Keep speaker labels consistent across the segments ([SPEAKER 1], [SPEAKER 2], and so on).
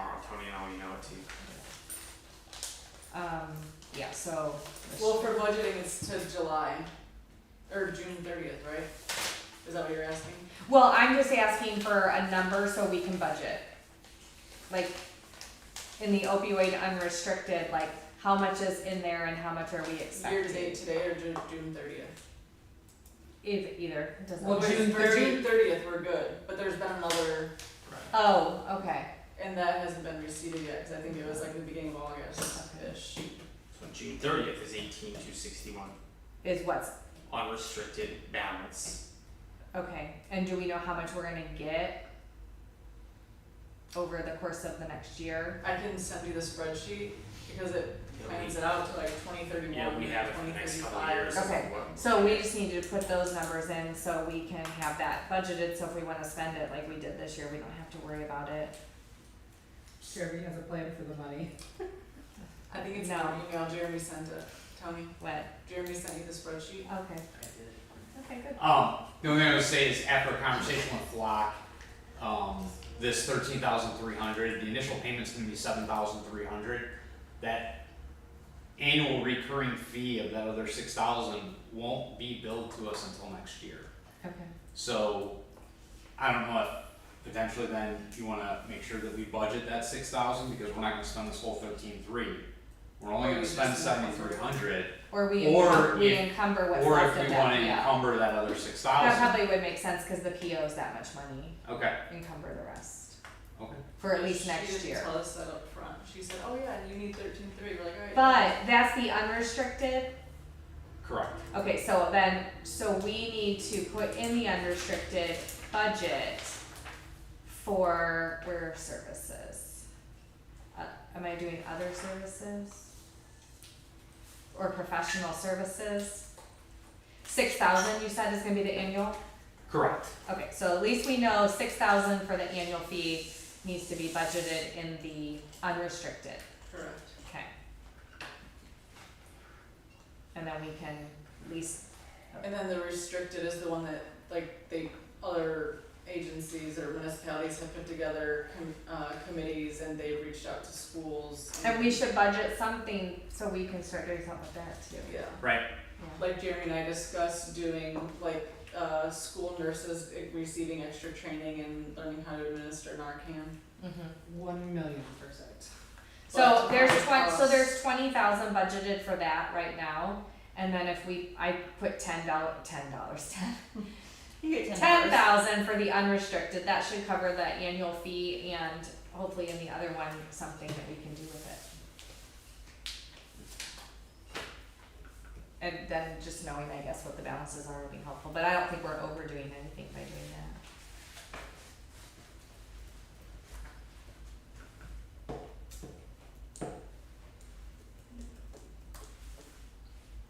[SPEAKER 1] now you know it too.
[SPEAKER 2] Um, yeah, so.
[SPEAKER 3] Well, for budgeting, it's to July, or June thirtieth, right? Is that what you're asking?
[SPEAKER 2] Well, I'm just asking for a number so we can budget. Like, in the opioid unrestricted, like, how much is in there and how much are we
[SPEAKER 3] Year to date
[SPEAKER 2] expecting?
[SPEAKER 3] today or Ju- June thirtieth?
[SPEAKER 2] Either, either, it doesn't.
[SPEAKER 4] Well,
[SPEAKER 3] For
[SPEAKER 2] matter.
[SPEAKER 4] June
[SPEAKER 3] for
[SPEAKER 4] 30th.
[SPEAKER 3] June thirtieth, we're good, but there's been another,
[SPEAKER 1] Right.
[SPEAKER 2] Oh, okay,
[SPEAKER 3] and that hasn't been received yet, cause I think it was like the beginning of August-ish.
[SPEAKER 1] So June thirtieth is eighteen two sixty one
[SPEAKER 2] is what's,
[SPEAKER 1] unrestricted balance.
[SPEAKER 2] okay, and do we know how much we're gonna get? Over the course of the next year?
[SPEAKER 3] I can send you the spreadsheet, because it
[SPEAKER 1] It'll be-
[SPEAKER 3] plans it out to like twenty thirty-one,
[SPEAKER 1] Yeah, we
[SPEAKER 3] twenty
[SPEAKER 1] have it for the next couple of years.
[SPEAKER 3] thirty-five.
[SPEAKER 1] is
[SPEAKER 2] Okay.
[SPEAKER 1] what-
[SPEAKER 2] So we just need to put those numbers in so we can have that budgeted, so if we wanna spend it like we did this year, we don't have to worry about it.
[SPEAKER 4] Sherry has a plan for the money.
[SPEAKER 3] I think it's in
[SPEAKER 2] No.
[SPEAKER 3] the email Jeremy sent it, Tony,
[SPEAKER 2] What,
[SPEAKER 3] Jeremy sent you the spreadsheet.
[SPEAKER 2] okay,
[SPEAKER 1] I did.
[SPEAKER 2] okay, good.
[SPEAKER 5] Um, the only thing I would say is after a conversation with Flock, um, this thirteen thousand three hundred, the initial payment's gonna be seven thousand three hundred. That annual recurring fee of that other six thousand won't be billed to us until next year.
[SPEAKER 2] Okay.
[SPEAKER 5] So, I don't know if potentially then you wanna make sure that we budget that six thousand, because we're not gonna spend this whole thirteen three. We're only
[SPEAKER 3] Or we
[SPEAKER 5] gonna spend
[SPEAKER 3] just not-
[SPEAKER 5] seventy-three hundred,
[SPEAKER 2] Or we
[SPEAKER 5] Or
[SPEAKER 2] encum- we
[SPEAKER 5] if-
[SPEAKER 2] encumber what's
[SPEAKER 5] or
[SPEAKER 2] left
[SPEAKER 5] if
[SPEAKER 2] of
[SPEAKER 5] we
[SPEAKER 2] that
[SPEAKER 5] wanna
[SPEAKER 2] PO.
[SPEAKER 5] encumber that other six
[SPEAKER 2] That
[SPEAKER 5] thousand,
[SPEAKER 2] probably would make sense, cause the PO is that much money,
[SPEAKER 5] okay,
[SPEAKER 2] encumber the rest,
[SPEAKER 5] okay.
[SPEAKER 2] for at
[SPEAKER 3] Yeah,
[SPEAKER 2] least
[SPEAKER 3] she
[SPEAKER 2] next
[SPEAKER 3] didn't
[SPEAKER 2] year.
[SPEAKER 3] tell us that up front. She said, "Oh yeah, you need thirteen three. We're like, "All right."
[SPEAKER 2] But that's the unrestricted,
[SPEAKER 5] Correct.
[SPEAKER 2] okay, so then, so we need to put in the unrestricted budget for, where are services? Uh, am I doing other services? Or professional services? Six thousand, you said is gonna be the annual?
[SPEAKER 5] Correct.
[SPEAKER 2] Okay, so at least we know six thousand for the annual fee needs to be budgeted in the unrestricted,
[SPEAKER 3] correct.
[SPEAKER 2] okay? And then we can at least,
[SPEAKER 3] And then the restricted is the one that like they other agencies or municipalities have put together com- uh, committees and they've reached out to schools.
[SPEAKER 2] and we should budget something so we can start doing something with that too.
[SPEAKER 3] Yeah,
[SPEAKER 5] Right.
[SPEAKER 2] Yeah.
[SPEAKER 3] like Jeremy and I discussed doing like uh, school nurses eh, receiving extra training and learning how to administer Narcan.
[SPEAKER 2] Mhm.
[SPEAKER 4] One million percent.
[SPEAKER 2] So
[SPEAKER 3] But
[SPEAKER 2] there's
[SPEAKER 3] it
[SPEAKER 2] twen- so
[SPEAKER 3] costs-
[SPEAKER 2] there's twenty thousand budgeted for that right now, and then if we, I put ten dollar, ten dollars, ten
[SPEAKER 4] You get
[SPEAKER 2] ten thousand for the unrestricted, that should cover the annual fee and hopefully in the other one, something that we can do with it. And then just knowing, I guess, what the balances are would be helpful, but I don't think we're overdoing anything by doing that.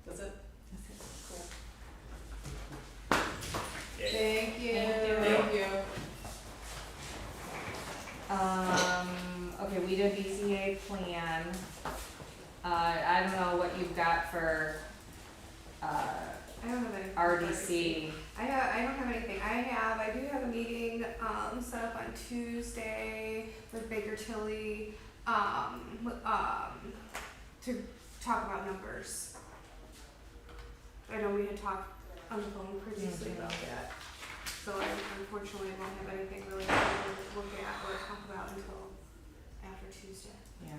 [SPEAKER 3] That's it. Cool.
[SPEAKER 1] Yeah.
[SPEAKER 3] Thank you.
[SPEAKER 2] Thank
[SPEAKER 1] you.
[SPEAKER 3] you.
[SPEAKER 2] Um, okay, we did BCA plan. Uh, I don't know what you've got for, uh,
[SPEAKER 6] I don't have anything. for
[SPEAKER 2] RDC.
[SPEAKER 6] I have, I don't have anything. I have, I do have a meeting, um, set up on Tuesday with Baker Tilly, um, with, um, to talk about numbers. I know we had talked on the phone previously about that, so I unfortunately won't have anything really to look at or talk about until after Tuesday.
[SPEAKER 2] Yeah.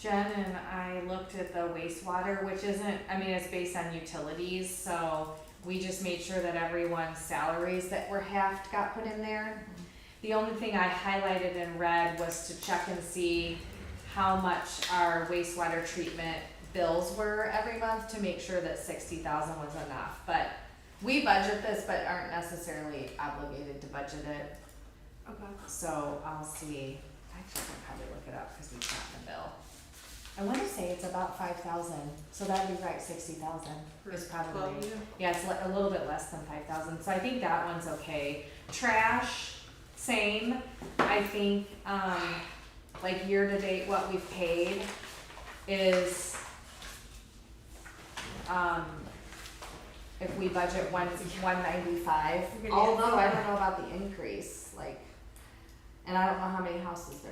[SPEAKER 2] Jen and I looked at the wastewater, which isn't, I mean, it's based on utilities, so we just made sure that everyone's salaries that were halved got put in there. The only thing I highlighted in red was to check and see how much our wastewater treatment bills were every month to make sure that sixty thousand was enough, but we budget this, but aren't necessarily obligated to budget it.
[SPEAKER 6] Okay.
[SPEAKER 2] So I'll see, actually, I can probably look it up because we got the bill. I wanna say it's about five thousand, so that'd be right, sixty thousand is
[SPEAKER 3] Well,
[SPEAKER 2] probably,
[SPEAKER 3] yeah.
[SPEAKER 2] yeah, it's li- a little bit less than five thousand, so I think that one's okay. Trash, same, I think, um, like year to date, what we've paid is, um, if we budget one, one ninety-five,
[SPEAKER 6] You're gonna get
[SPEAKER 2] although I
[SPEAKER 6] more.
[SPEAKER 2] don't know about the increase, like, and I don't know how many houses there